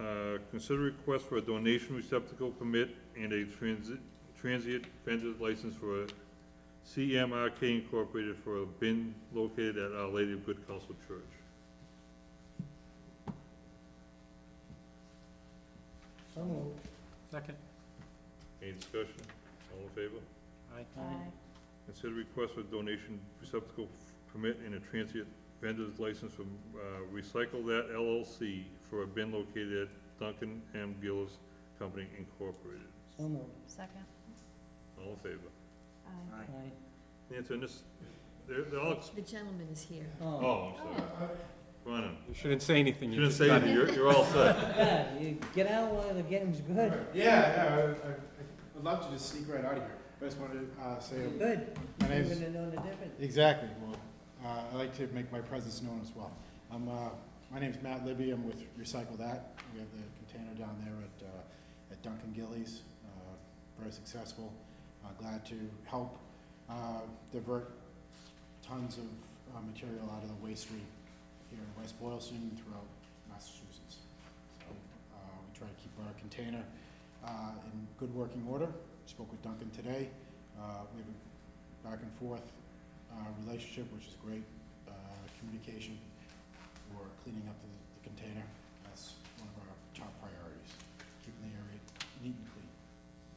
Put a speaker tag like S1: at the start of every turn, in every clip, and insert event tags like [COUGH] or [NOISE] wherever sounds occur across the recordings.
S1: Uh, Consider request for a donation receptacle permit and a transit, transient vendor's license for CMRK Incorporated for a bin located at Our Lady of Good Counsel Church.
S2: So moved.
S3: Second.
S1: Any discussion? All in favor?
S3: Aye.
S1: Consider request for donation receptacle permit and a transient vendor's license from uh, Recycle That LLC for a bin located at Duncan M. Gillis Company Incorporated.
S2: So moved.
S4: Second.
S1: All in favor?
S4: Aye.
S2: Aye.
S1: Nancy, and this, they're, they're all, ex-
S4: The gentleman is here.
S2: Oh,
S1: oh, I'm sorry. Come on in.
S3: You shouldn't say anything.
S1: Shouldn't say that, you're, you're all set.
S2: yeah, you get out while the game's good.
S5: Yeah, yeah, I, I, I'd love to just sneak right out of here, but I just wanted to uh, say
S2: Good.
S5: my
S2: You're
S5: name's
S2: gonna know the difference.
S5: exactly. Well, uh, I like to make my presence known as well. I'm, uh, my name's Matt Libby. I'm with Recycle That. We have the container down there at uh, at Duncan Gillies. Uh, very successful. Uh, glad to help uh, divert tons of uh, material out of the waste stream here in West Boylston and throughout Massachusetts. So, uh, we try to keep our container uh, in good working order. Spoke with Duncan today. Uh, we have a back and forth uh, relationship, which is great. Uh, communication for cleaning up the, the container. That's one of our top priorities, keeping the area neat and clean.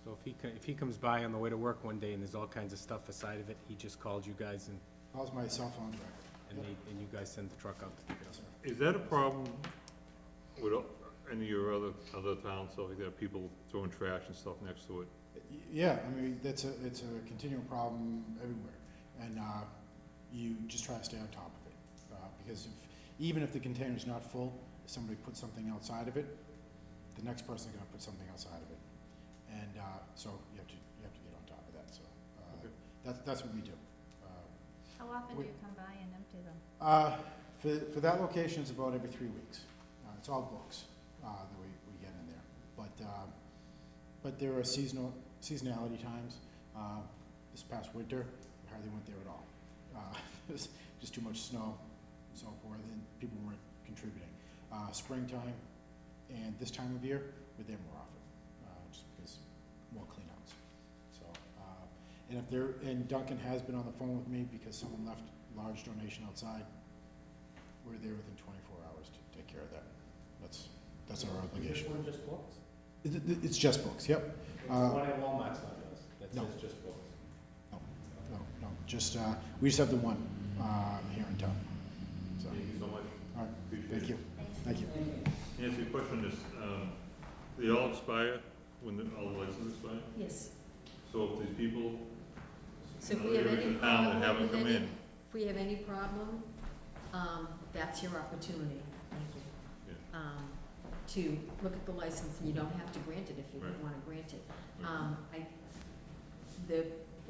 S3: So if he, co- if he comes by on the way to work one day and there's all kinds of stuff aside of it, he just calls you guys and,
S5: How's my cell phone record?
S3: and they, and you guys send the truck out to pick it up.
S5: Yes, sir.
S1: Is that a problem with all- any of your other, other towns, stuff like that, people throwing trash and stuff next to it?
S5: Y- Yeah, I mean, that's a, it's a continual problem everywhere, and, uh, you just try to stay on top of it, uh, because if, even if the container's not full, if somebody puts something outside of it, the next person's gonna put something outside of it, and, uh, so you have to, you have to get on top of that, so, uh,
S1: Okay.
S5: that's, that's what we do. Uh,
S4: How often
S5: do
S4: do
S5: you
S4: you come by and empty them?
S5: uh, For, for that location, it's about every three weeks. Uh, It's all books uh, that we, we get in there. But, um, but there are seasonal, seasonality times. Uh, This past winter, we hardly went there at all. Uh, [LAUGHS] It was just too much snow and so forth, and people weren't contributing. Uh, Springtime and this time of year, we're there more often, uh, just because more cleanouts. So, uh, and if there, and Duncan has been on the phone with me because someone left a large donation outside, we're there within twenty-four hours to take care of that. That's, that's our obligation.
S3: one just books?
S5: It- it- It's just books, yep.
S3: It's
S5: Uh, one
S3: at Walmart's not yours, that
S5: No. says
S3: just books.
S5: No, no, just, uh, we just have the one um, here in town. So,
S1: Thank you so much.
S5: all right,
S1: Appreciate it.
S5: thank you, thank you.
S1: Nancy, a question is, um, they all expire when the, all the licenses expire?
S4: Yes.
S1: So if these people, uh,
S4: So if
S1: in
S4: we have
S1: other areas
S4: any
S1: of town that
S4: problem
S1: haven't
S4: with
S1: come
S4: any,
S1: in,
S4: if we have any problem, um, that's your opportunity, thank you. Um, to look at the license, and you don't have to grant it if you
S1: Right.
S4: don't wanna grant it.
S1: Right.
S4: Um, I, the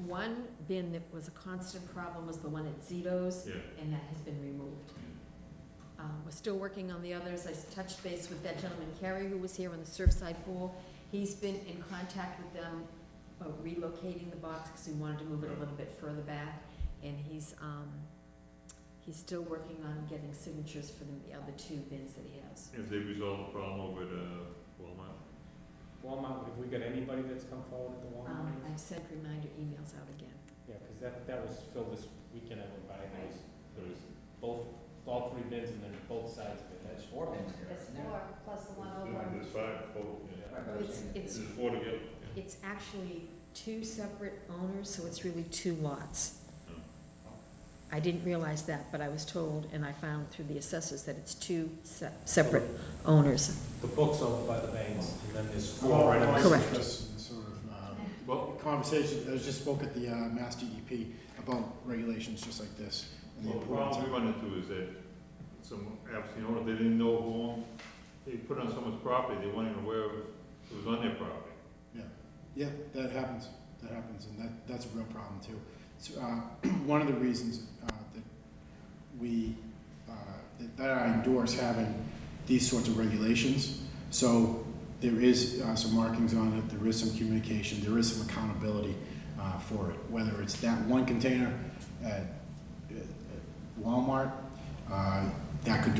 S4: one bin that was a constant problem was the one at Zito's,
S1: yeah,
S4: and that has been removed. Um, We're still working on the others. I s- touched base with that gentleman, Kerry, who was here on the Surfside Pool. He's been in contact with them about relocating the box because we wanted to move it a little bit further back. And he's, um, he's still working on getting signatures for the other two bins that he has.
S1: if they resolve the problem over at uh, Walmart?
S3: Walmart, have we got anybody that's come forward at the
S4: Um, I've sent reminder emails out again.
S3: Yeah, because that, that was filled this weekend, I went by, there was, there was both, all three bins and then both sides of it, that's four bins.
S4: plus the
S1: There's five, oh, yeah.
S4: It's, it's,
S1: There's four together, yeah.
S4: it's actually two separate owners, so it's really two lots.
S1: Oh.
S4: I didn't realize that, but I was told, and I found through the assessors, that it's two se- separate owners.
S3: The book's over by the banks, and then there's
S5: Well,
S3: four Oh, right
S5: I'm
S3: on
S4: Correct.
S5: always interested in Sort of, um,
S1: Well,
S5: conversation, I just spoke at the uh, Mass DEP about regulations just like this. and the
S1: well, the
S5: importance
S1: problem
S5: of-
S1: we run into is that some absentee owner, they didn't know who owned, they put it on someone's property, they weren't even aware of it was on their property.
S5: Yeah, that happens, that happens, and that, that's a real problem too. So, uh, [CLEARS THROAT] one of the reasons, uh, that we, uh, that- that I endorse having these sorts of regulations, so there is, uh, some markings on it, there is some communication, there is some accountability, uh, for it, whether it's that one container at at Walmart, uh, that could